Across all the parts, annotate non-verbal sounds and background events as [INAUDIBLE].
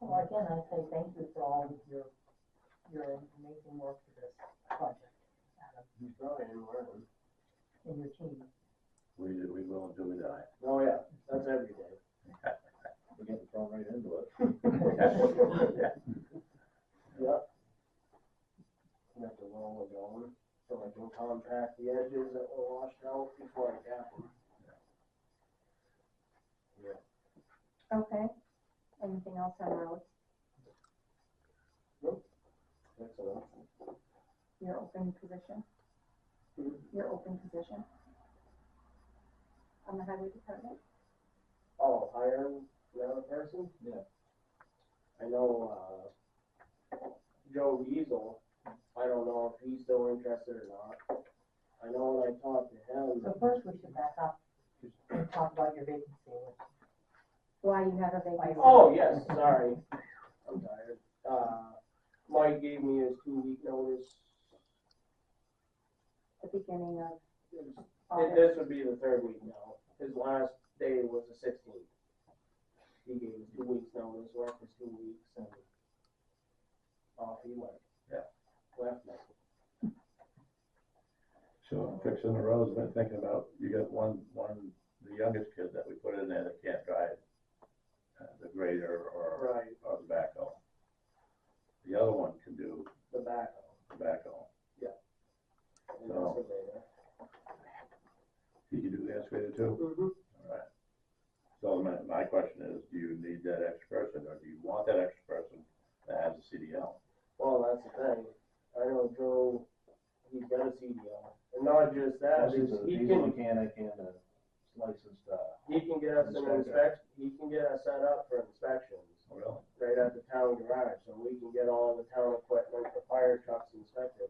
again, I say thank you for all of your, your amazing work for this project, Adam, You probably didn't learn. and your team. We, we will until we die. Oh, yeah, that's every day. We're gonna throw right into it. [LAUGHS] Yep. You have to roll it going, so I can contract the edges that were washed out before I cap them. Okay, anything else on roads? That's all. Your open position? Mhm. Your open position? On the highway department? Oh, hire another person? Yeah. I know, uh, Joe Diesel, I don't know if he's still interested or not. I know when I talked to him, So first, we should back up and talk about your vacancy, which Why you have a vacancy? Oh, yes, sorry. I'm tired. Uh, Mike gave me his two week notice. The beginning of And August. this would be the third week now. His last day was the sixteenth. He gave me two weeks notice, worked for two weeks and off he went. Yeah. Left me. So fixing the roads, I've been thinking about, you got one, one, the youngest kid that we put in there that can't drive uh, the grader or, Right, or the backhoe. The other one can do the backhoe. the backhoe. and Oh. excavator. He can do the excavator too? Alright. So my, my question is, do you need that extra person or do you want that extra person that has a CDL? Well, that's the thing. I know Joe, he's got a CDL. And not just that, This is is a he can diesel mechanic and a licensed, uh, He can get us an Inspector. inspection, he can get us set up for inspections Oh, really? right at the town garage, so we can get all the town equipment, the fire trucks inspected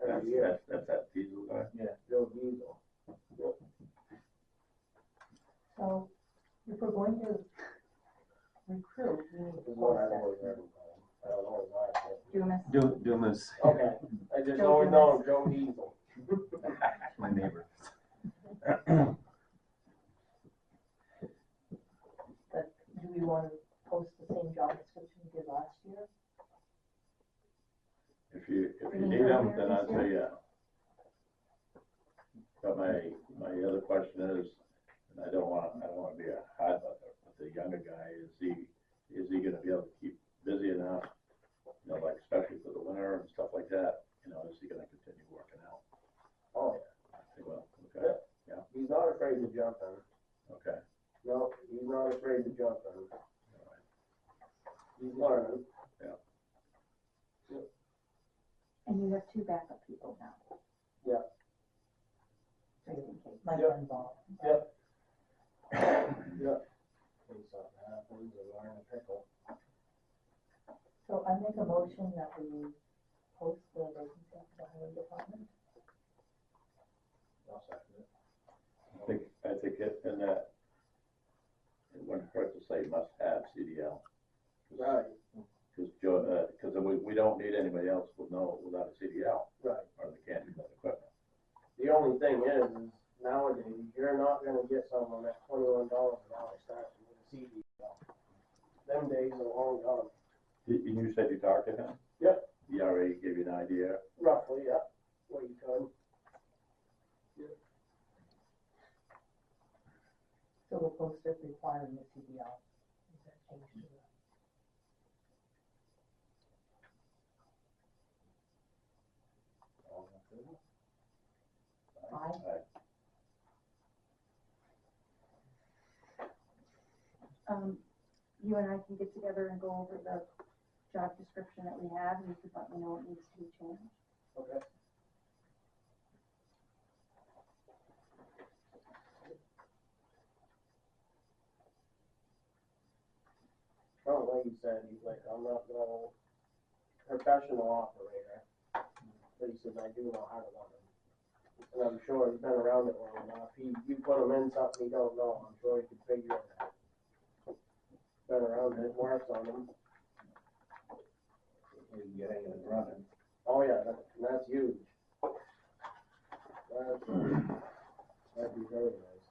That's, every year, that's, that's that diesel guy? Joe Diesel. So if we're going to recruit, we need to Is what post I've that. always heard him call him. I don't know why. Dumas, Dum- Dumas, but- Okay, I just Joe always know him, Joe Diesel. my neighbor. Do we want to post the same job description we did last year? If you, if you Any need them, earlier then I'd this say yeah. But my, my other question is, and I don't wanna, I don't wanna be a hot button, but the younger guy, is he, is he gonna be able to keep busy enough? You know, like especially for the winter and stuff like that, you know, is he gonna continue working out? Oh, yeah. I think, well, okay, he's not afraid to jump in, okay, no, he's not afraid to jump in, all right. he's learning. and you have two backup people now. So you can take Mike Yep. involved. Yeah. When something happens, they learn to pickle. So I make a motion that we post the vacancy for the highway department. I'll second it. I think, I think it, and that, it wouldn't hurt to say must have CDL. 'cause- Right, Cause Joe, uh, cause we, we don't need anybody else with no, without a CDL. right. or they can't do that equipment. The only thing is, is nowadays, you're not gonna get someone at twenty-one dollars an hour starting with a CDL. Them days are long gone, Did, and you said you talked to him? Yep. He already gave you an idea, roughly, yeah, what you could. So we'll post it requiring the CDL. Is that changed to the- All in favor? Aye. Um, you and I can get together and go over the job description that we have, and you can let me know what needs to be changed. Okay. Oh, like you said, he's like, I'm not no professional operator, but he says, I do know how to run them. And I'm sure he's been around it long enough, he, you put him in something he don't know, I'm sure he can figure it out. Been around it, works on them, We can get anything running. oh yeah, that, that's huge. That's, uh, that'd be very nice.